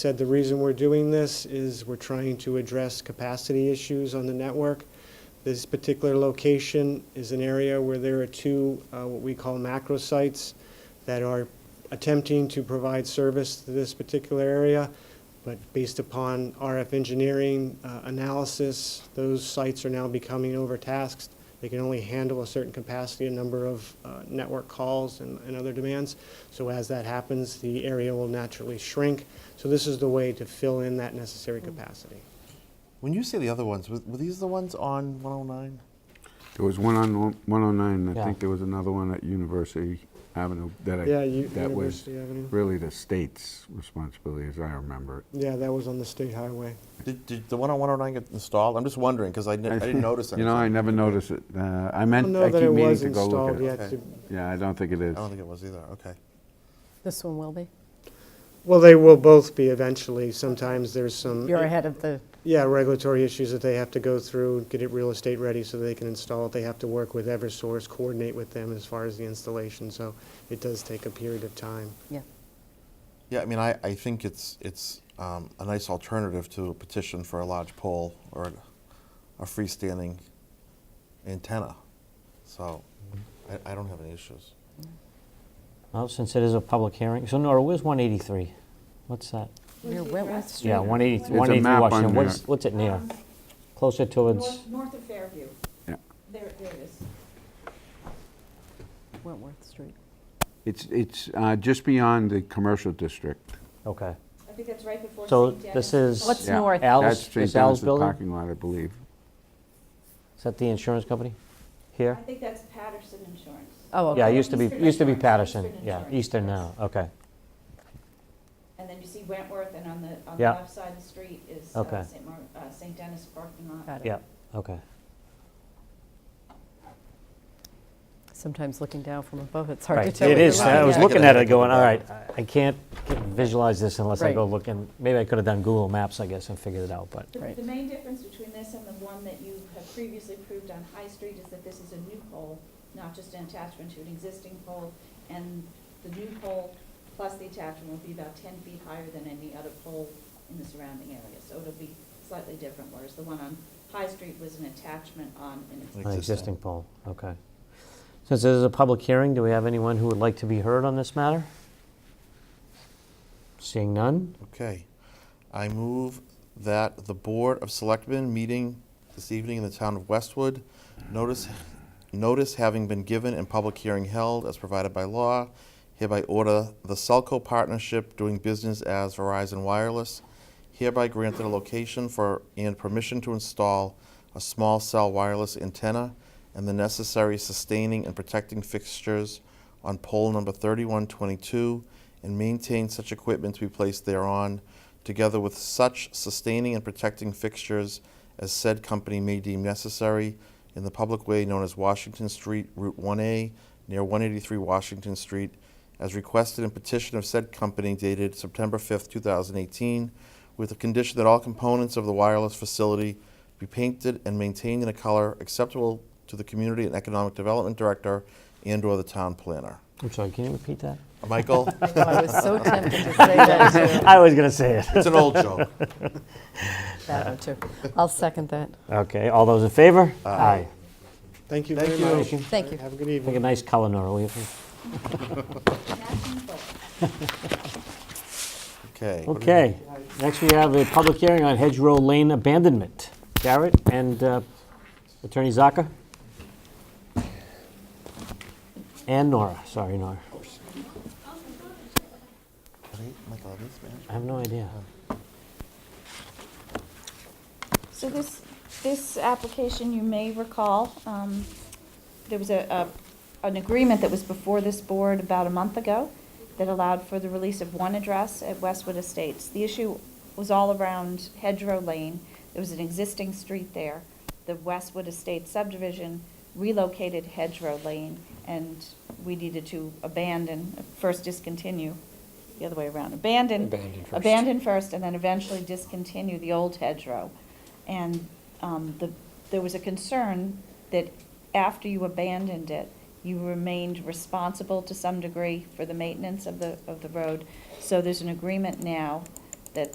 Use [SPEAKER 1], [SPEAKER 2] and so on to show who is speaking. [SPEAKER 1] Said the reason we're doing this is we're trying to address capacity issues on the network. This particular location is an area where there are two, uh, what we call macro sites, that are attempting to provide service to this particular area. But based upon RF engineering uh, analysis, those sites are now becoming overtasked. They can only handle a certain capacity, a number of uh, network calls and and other demands. So as that happens, the area will naturally shrink. So this is the way to fill in that
[SPEAKER 2] Mm.
[SPEAKER 1] necessary capacity.
[SPEAKER 3] When you say the other ones, were, were these the ones on 109?
[SPEAKER 4] There was one on one- 109, and
[SPEAKER 3] Yeah.
[SPEAKER 4] I think there was another one at University Avenue that I,
[SPEAKER 1] Yeah, U-
[SPEAKER 4] that was
[SPEAKER 1] University Avenue.
[SPEAKER 4] really the state's responsibility, as I remember it.
[SPEAKER 1] Yeah, that was on the state highway.
[SPEAKER 3] Did, did the one on 109 get installed? I'm just wondering because I, didn't- I didn't notice anything.
[SPEAKER 4] You know, I never noticed it. Uh, I
[SPEAKER 1] I
[SPEAKER 4] meant,
[SPEAKER 1] don't know
[SPEAKER 4] I
[SPEAKER 1] that
[SPEAKER 4] keep
[SPEAKER 1] it
[SPEAKER 4] meaning
[SPEAKER 1] was
[SPEAKER 4] to go
[SPEAKER 1] installed
[SPEAKER 4] look
[SPEAKER 1] yet.
[SPEAKER 4] at it.
[SPEAKER 3] Okay.
[SPEAKER 1] to-
[SPEAKER 4] Yeah, I don't think it is.
[SPEAKER 3] I don't think it was either. Okay.
[SPEAKER 2] This one will be.
[SPEAKER 1] Well, they will both be eventually. Sometimes there's
[SPEAKER 5] Mm,
[SPEAKER 1] some.
[SPEAKER 2] You're ahead of the,
[SPEAKER 1] Yeah, regulatory issues that they have to go through, get it real estate ready so they can install it. They have to work with Eversource, coordinate with them as far as the installation, so it does take a period of time.
[SPEAKER 2] yeah.
[SPEAKER 3] Yeah, I mean, I, I think it's it's um, a nice alternative to a petition for a large pole or a, a freestanding antenna. So I, I don't have any issues.
[SPEAKER 5] Well, since it is a public hearing, so Nora, where's 183? What's that?
[SPEAKER 2] Near Wentworth Street.
[SPEAKER 5] Yeah, 183
[SPEAKER 4] a
[SPEAKER 5] 183
[SPEAKER 4] map on
[SPEAKER 5] Washington, what's,
[SPEAKER 4] there.
[SPEAKER 5] what's it near? Closer towards,
[SPEAKER 6] North, north of Fairview.
[SPEAKER 4] Yeah.
[SPEAKER 6] There, there it is.
[SPEAKER 2] Wentworth Street.
[SPEAKER 4] It's, it's uh, just beyond the commercial district.
[SPEAKER 5] okay.
[SPEAKER 6] I think that's right before
[SPEAKER 5] So
[SPEAKER 6] St.
[SPEAKER 5] this
[SPEAKER 6] Dennis.
[SPEAKER 5] is.
[SPEAKER 2] What's north?
[SPEAKER 5] Al's-
[SPEAKER 4] That's St.
[SPEAKER 5] is Al's
[SPEAKER 4] Dennis's
[SPEAKER 5] building?
[SPEAKER 4] parking lot, I believe.
[SPEAKER 5] Is that the insurance company?
[SPEAKER 6] I
[SPEAKER 5] Here?
[SPEAKER 6] think that's Patterson Insurance.
[SPEAKER 2] Oh, okay.
[SPEAKER 5] Yeah, it used to be,
[SPEAKER 6] Eastern
[SPEAKER 5] used to be
[SPEAKER 6] Insurance,
[SPEAKER 5] Patterson,
[SPEAKER 6] Eastern
[SPEAKER 5] yeah,
[SPEAKER 6] Insurance,
[SPEAKER 5] Eastern
[SPEAKER 6] yes.
[SPEAKER 5] now, okay.
[SPEAKER 6] And then you see Wentworth, and on the, on the
[SPEAKER 5] Yeah.
[SPEAKER 6] left side of the street is uh,
[SPEAKER 5] Okay.
[SPEAKER 6] St. Mar, uh, St. Dennis parking lot.
[SPEAKER 2] Got it.
[SPEAKER 5] Yeah, okay.
[SPEAKER 2] Sometimes looking down from above, it's hard to
[SPEAKER 5] Right,
[SPEAKER 2] tell.
[SPEAKER 5] it
[SPEAKER 2] what
[SPEAKER 5] is,
[SPEAKER 2] you're looking
[SPEAKER 5] I was
[SPEAKER 2] at.
[SPEAKER 5] looking at it going, all
[SPEAKER 3] Right.
[SPEAKER 5] right, I- I can't can't visualize this unless I
[SPEAKER 2] Right.
[SPEAKER 5] go look and, maybe I could have done Google Maps, I guess, and figured it out, but,
[SPEAKER 6] The-
[SPEAKER 2] Right.
[SPEAKER 6] The main difference between this and the one that you have previously approved on High Street is that this is a new pole, not just an attachment to an existing pole. And the new pole plus the attachment will be about ten feet higher than any other pole in the surrounding area. So it'll be slightly different, whereas the one on High Street was an attachment on an existing.
[SPEAKER 5] an existing pole, okay. Since this is a public hearing, do we have anyone who would like to be heard on this matter? Seeing none?
[SPEAKER 3] Okay. I move that the Board of Selectmen meeting this evening in the town of Westwood, notice, notice having been given and public hearing held as provided by law, hereby order the Selco Partnership doing business as Verizon Wireless, hereby granted a location for and permission to install a small cell wireless antenna and the necessary sustaining and protecting fixtures on pole number 3122 and maintain such equipment to be placed thereon, together with such sustaining and protecting fixtures as said company may deem necessary in the public way known as Washington Street, Route 1A, near 183 Washington Street, as requested in petition of said company dated September 5th, 2018, with the condition that all components of the wireless facility be painted and maintained in a color acceptable to the Community and Economic Development Director and/or the town planner.
[SPEAKER 5] I'm sorry, can you repeat that?
[SPEAKER 3] Michael,
[SPEAKER 2] I know, I was so tempted to say that too.
[SPEAKER 5] I was going to say it.
[SPEAKER 3] it's an old joke.
[SPEAKER 2] That one too. I'll second that.
[SPEAKER 5] Okay, all those in favor? Aye.
[SPEAKER 1] Thank you
[SPEAKER 3] Thank
[SPEAKER 1] very
[SPEAKER 3] you.
[SPEAKER 1] much.
[SPEAKER 2] Thank you.
[SPEAKER 1] Have a good
[SPEAKER 5] Make a
[SPEAKER 1] evening.
[SPEAKER 5] nice color, Nora, will you?
[SPEAKER 6] Matching pole.
[SPEAKER 3] Okay.
[SPEAKER 5] Okay, next we have a public hearing on Hedge Row Lane abandonment. Garrett and uh, Attorney Zaka? And Nora, sorry, Nora.
[SPEAKER 3] Michael, this man.
[SPEAKER 5] I have no idea.
[SPEAKER 6] So this, this application, you may recall, um, there was a, a- an agreement that was before this board about a month ago that allowed for the release of one address at Westwood Estates. The issue was all around Hedgerow Lane. There was an existing street there. The Westwood Estates subdivision relocated Hedgerow Lane, and we needed to abandon, first discontinue, the other way around, abandon.
[SPEAKER 5] Abandon first.
[SPEAKER 6] Abandon first, and then eventually discontinue the old hedgerow. And um, the, there was a concern that after you abandoned it, you remained responsible to some degree for the maintenance of the, of the road. So there's an agreement now